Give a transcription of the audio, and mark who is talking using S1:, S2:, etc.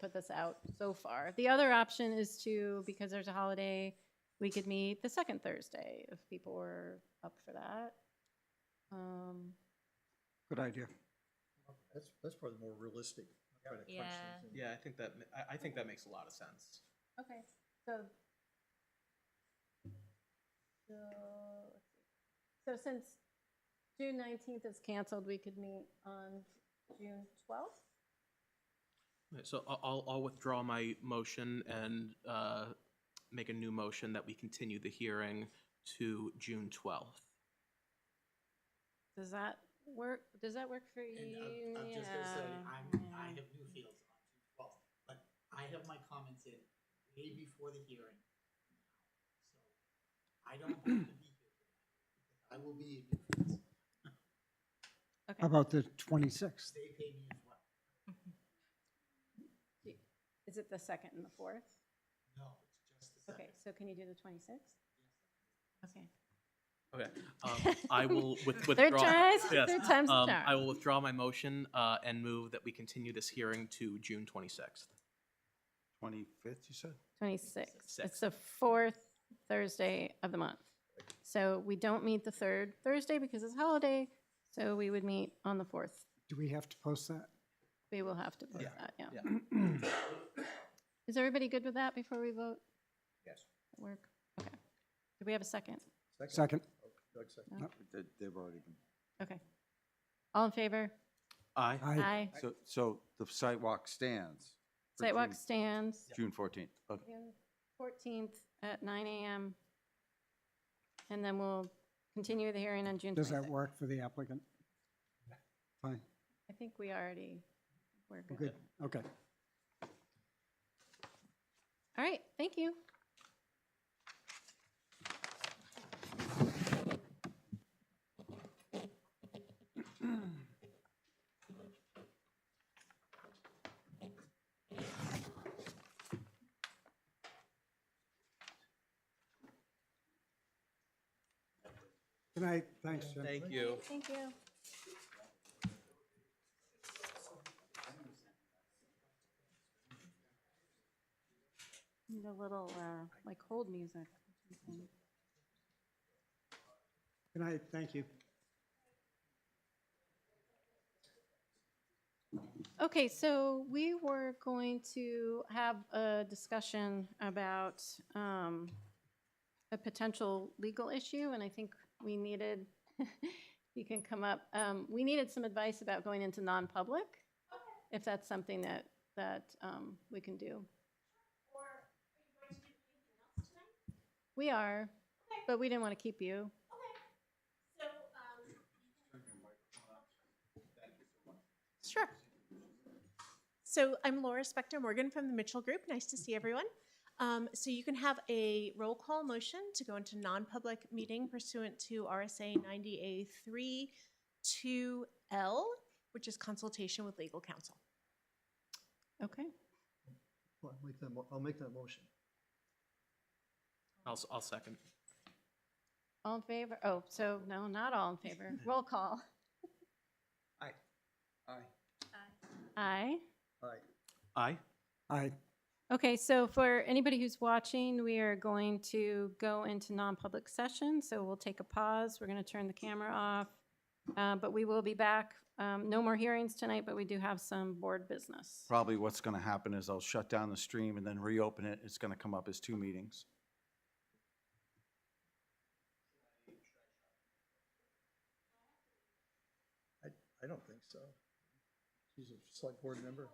S1: put this out so far. The other option is to, because there's a holiday, we could meet the second Thursday if people were up for that. Um,
S2: Good idea.
S3: That's, that's probably more realistic. try to crunch things
S4: Yeah.
S3: in.
S5: Yeah, I think that, ma- I, I think that makes a lot of sense.
S1: Okay, so. So, let's see. so since June nineteenth is canceled, we could meet on June twelfth?
S5: Right, So I- I'll, I'll withdraw my motion and uh, make a new motion that we continue the hearing to June 12th.
S1: Does that work, does that work for
S6: And
S1: you?
S6: I'm, I'm just gonna say,
S1: Yeah.
S6: I'm, I have new fields on June twelfth, but I have my comments in way before the hearing. So I don't have to be here. I will be in Newfields,
S2: How
S1: Okay,
S2: about the 26th?
S6: they pay me as well.
S1: is it the second and the fourth?
S6: No, it's just the
S1: Okay,
S6: second.
S1: so can you do the twenty-sixth? Okay.
S5: Okay. um, I will with- withdraw.
S1: Third tries,
S5: Yes,
S1: third time's the
S5: um,
S1: charm.
S5: I will withdraw my motion uh, and move that we continue this hearing to June 26th.
S3: Twenty-fifth, you said?
S1: Twenty-sixth. It's
S5: Sixth.
S1: the fourth Thursday of the month. So we don't meet the third Thursday because it's holiday, so we would meet on the fourth.
S2: Do we have to post that?
S1: We will have to post
S5: Yeah,
S1: that, yeah.
S5: yeah.
S1: Is everybody good with that before we vote?
S3: Yes.
S1: That Work, okay. Do we have a second?
S2: Second.
S3: Oh, Doug second.
S1: No.
S7: They- They've already been.
S1: Okay. All in favor?
S5: Aye.
S2: Aye.
S1: Aye.
S7: So, so the sidewalk stands. for
S1: Sidewalk
S7: June-
S1: stands
S7: June fourteenth. Uh, Okay.
S1: June fourteenth at nine AM. And then we'll continue the hearing on June
S2: Does that
S1: twenty-sixth.
S2: work for the applicant? Fine,
S1: I think we already, we're
S2: We're
S1: good.
S2: good, okay.
S1: All right, thank you.
S2: Good night, thanks, Jim.
S5: Thank you.
S1: Thank you. Need a little, uh, like hold music. or something.
S2: Good night, thank you.
S1: Okay, so we were going to have a discussion about um, a potential legal issue, and I think we needed, you can come up, um, we needed some advice about going into non-public, if that's something that, that um, we can do. We are, but we didn't want to keep you.
S8: Sure. So I'm Laura Spector Morgan from the Mitchell Group. Nice to see everyone. Um, so you can have a roll call motion to go into non-public meeting pursuant to RSA 90A 32L, which is consultation with legal counsel.
S1: Okay,
S3: Well, I'll make that, mo- I'll make that motion.
S5: I'll, s- I'll second.
S1: all in favor? Oh, so no, not all in favor. Roll call.
S5: Aye.
S1: Aye.
S3: All right.
S5: Aye.
S2: Aye,
S1: Okay, so for anybody who's watching, we are going to go into non-public session, so we'll take a pause. We're going to turn the camera off. uh, But we will be back. Um, No more hearings tonight, but we do have some board business.
S7: Probably what's gonna happen is I'll shut down the stream and then reopen it. It's gonna come up as two meetings.
S3: I, I don't think so. She's a select board member.